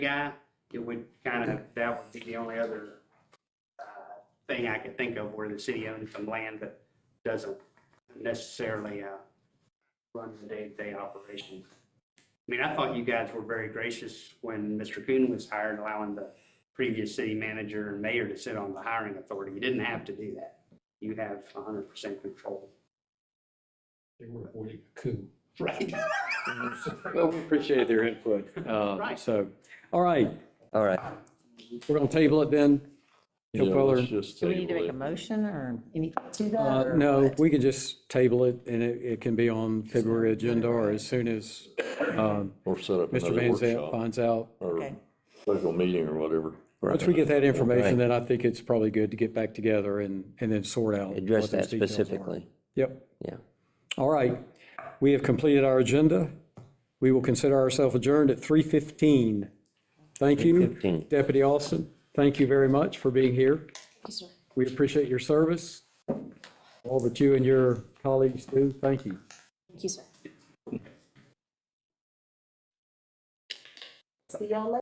guy, it would kind of, that would be the only other uh, thing I could think of where the city owns some land that doesn't necessarily uh, run the day-to-day operation. I mean, I thought you guys were very gracious when Mr. Kuhn was hired, allowing the previous city manager and mayor to sit on the hiring authority. You didn't have to do that. You have 100% control. They were avoiding a coup. Right. Well, we appreciate their input. uh, Right. So, all right, All right. we're going to table it then. No Yeah, further- let's just Do we need to table make it. a motion or anything to Uh, that? or No, what? we could just table it and it, it can be on February agenda or as soon as um, Or set up Mr. another Van Zant workshop finds out. or Okay. special meeting or whatever. Once we get that information, Right. then I think it's probably good to get back together and, and then sort out. what those Address that details are. specifically. Yep. Yeah. All right. We have completed our agenda. We will consider ourselves adjourned at 3:15. Thank you, 3:15. Deputy Austin. Thank you very much for being here. Yes, sir. We appreciate your service, all that you and your colleagues do. Thank you. Thank you, sir. See y'all later.